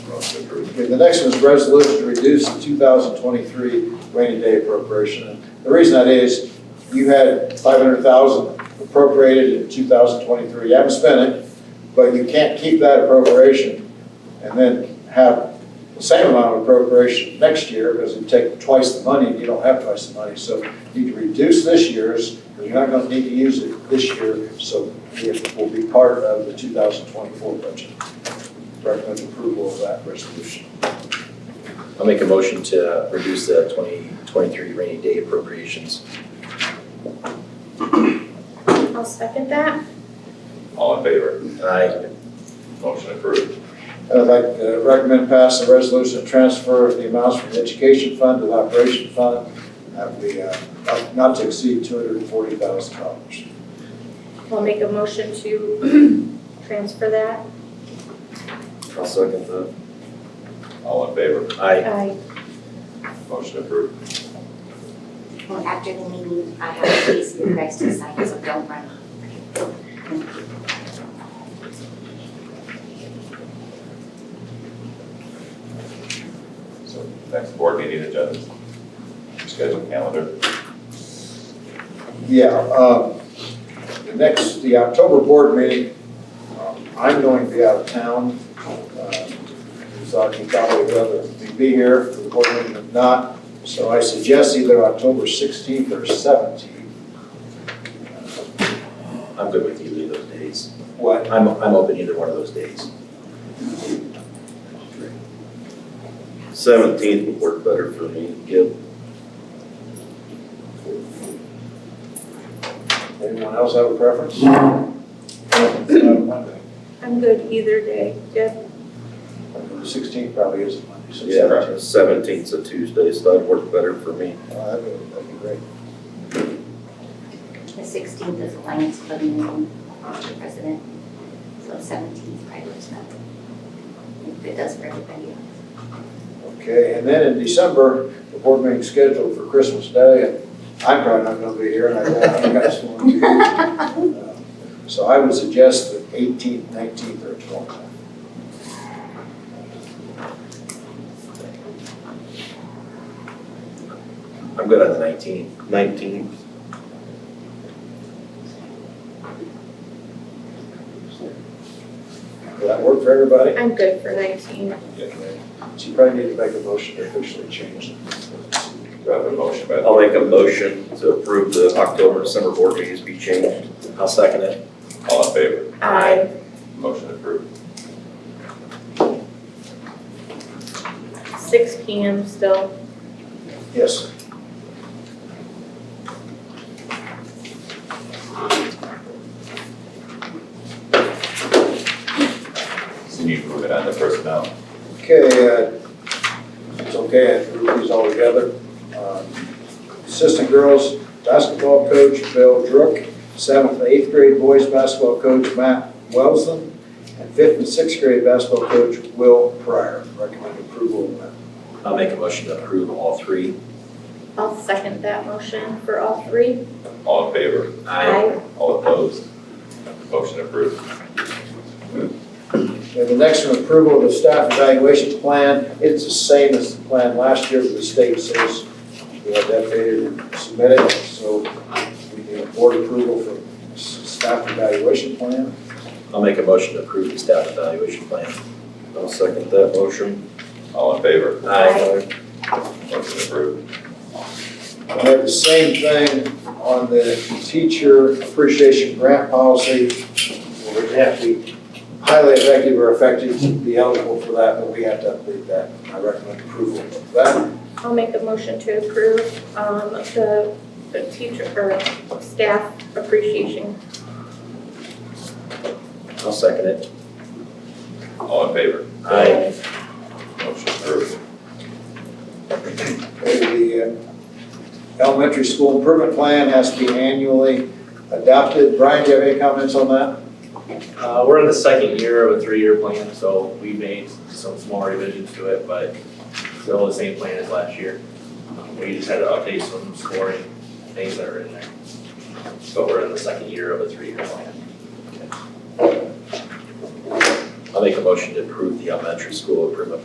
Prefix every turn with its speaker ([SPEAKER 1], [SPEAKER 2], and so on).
[SPEAKER 1] Okay, the next one is resolution to reduce the two thousand twenty-three rainy day appropriation. And The reason that is, you had five hundred thousand appropriated in two thousand twenty-three, you haven't spent it, but you can't keep that appropriation and then have the same amount of appropriation next year, because you take twice the money, and you don't have twice the money. So you need to reduce this year's, because you're not gonna need to use it this year, so it will be part of the two thousand twenty-four budget. Recommend approval of that resolution.
[SPEAKER 2] I'll make a motion to reduce the 2023 rainy day appropriations.
[SPEAKER 3] I'll second that.
[SPEAKER 4] All in favor?
[SPEAKER 2] Aye.
[SPEAKER 4] Motion approved.
[SPEAKER 1] And I'd like to recommend pass the resolution to transfer of the amounts from the education fund to the operation fund that we, uh, not- not to exceed two hundred and forty thousand dollars.
[SPEAKER 3] I'll make a motion to transfer that.
[SPEAKER 2] I'll second that.
[SPEAKER 4] All in favor?
[SPEAKER 2] Aye.
[SPEAKER 3] Aye.
[SPEAKER 4] Motion approved.
[SPEAKER 5] Well, after the meeting, I have a case for you guys to sign, so don't run.
[SPEAKER 4] So next board meeting agenda, schedule calendar.
[SPEAKER 1] Yeah, um, the next, the October board meeting, um, I'm going to be out of town. uh, So I can probably rather be here for the board meeting than not. So I suggest either October sixteenth or seventeenth.
[SPEAKER 2] I'm good with either of those days.
[SPEAKER 1] What,
[SPEAKER 2] I'm, I'm open either one of those days.
[SPEAKER 6] Seventeenth would work better for me. Yep.
[SPEAKER 1] anyone else have a preference? Uh, Monday.
[SPEAKER 3] I'm good either day. Deb?
[SPEAKER 1] The sixteenth probably is Monday, so
[SPEAKER 6] Yeah, seventeenth's a Tuesday, so that'd work better for me.
[SPEAKER 1] Uh, That'd be, that'd be great.
[SPEAKER 5] The sixteenth is Lions Club meeting, uh, the president, so seventeenth probably works better. If it does for everybody else.
[SPEAKER 1] Okay, and then in December, the board meeting's scheduled for Christmas Day, and I'm probably not gonna be here, and I doubt you guys will be. Uh, So I would suggest the eighteenth, nineteenth, or twelfth.
[SPEAKER 2] I'm good on the 19th.
[SPEAKER 6] Nineteenth.
[SPEAKER 1] Will that work for everybody?
[SPEAKER 3] I'm good for 19.
[SPEAKER 1] So you probably need to make a motion to officially change it.
[SPEAKER 4] Do I have a motion by?
[SPEAKER 6] I'll make a motion to approve the October, and December board meetings be changed.
[SPEAKER 2] I'll second it.
[SPEAKER 4] All in favor?
[SPEAKER 3] Aye.
[SPEAKER 4] Motion approved.
[SPEAKER 3] 6 PM still.
[SPEAKER 1] Yes.
[SPEAKER 4] So you move it on to personnel.
[SPEAKER 1] Okay, uh, it's okay, I threw these all together. Um, Assistant girls basketball coach Bill Druk, seventh and eighth grade boys basketball coach Matt Wellsland, and fifth and sixth grade basketball coach Will Pryor. Recommend approval of that.
[SPEAKER 2] I'll make a motion to approve all three.
[SPEAKER 3] I'll second that motion for all three.
[SPEAKER 4] All in favor?
[SPEAKER 3] Aye.
[SPEAKER 4] All opposed? Motion approved.
[SPEAKER 1] And the next one, approval of the staff evaluation plan. It's the same as the plan last year, but the state says we have that dated and submitted, so we need a board approval for s- staff evaluation plan.
[SPEAKER 2] I'll make a motion to approve the staff evaluation plan.
[SPEAKER 6] I'll second that motion.
[SPEAKER 4] All in favor?
[SPEAKER 3] Aye.
[SPEAKER 4] Motion approved.
[SPEAKER 1] I have the same thing on the teacher appreciation grant policy. We're gonna have to be highly effective or effective to be eligible for that, but we have to update that. I recommend approval of that.
[SPEAKER 3] I'll make a motion to approve um, the the teacher, or staff appreciation.
[SPEAKER 2] I'll second it.
[SPEAKER 4] All in favor?
[SPEAKER 2] Aye.
[SPEAKER 4] Motion approved.
[SPEAKER 1] The uh, elementary school improvement plan has to be annually adopted. Brian, do you have any comments on that?
[SPEAKER 7] Uh, we're in the second year of a three-year plan, so we made some small revisions to it, but still the same plan as last year. Um, We just had to update some scoring things that are in there. But we're in the second year of a three-year plan.
[SPEAKER 2] I'll make a motion to approve the elementary school improvement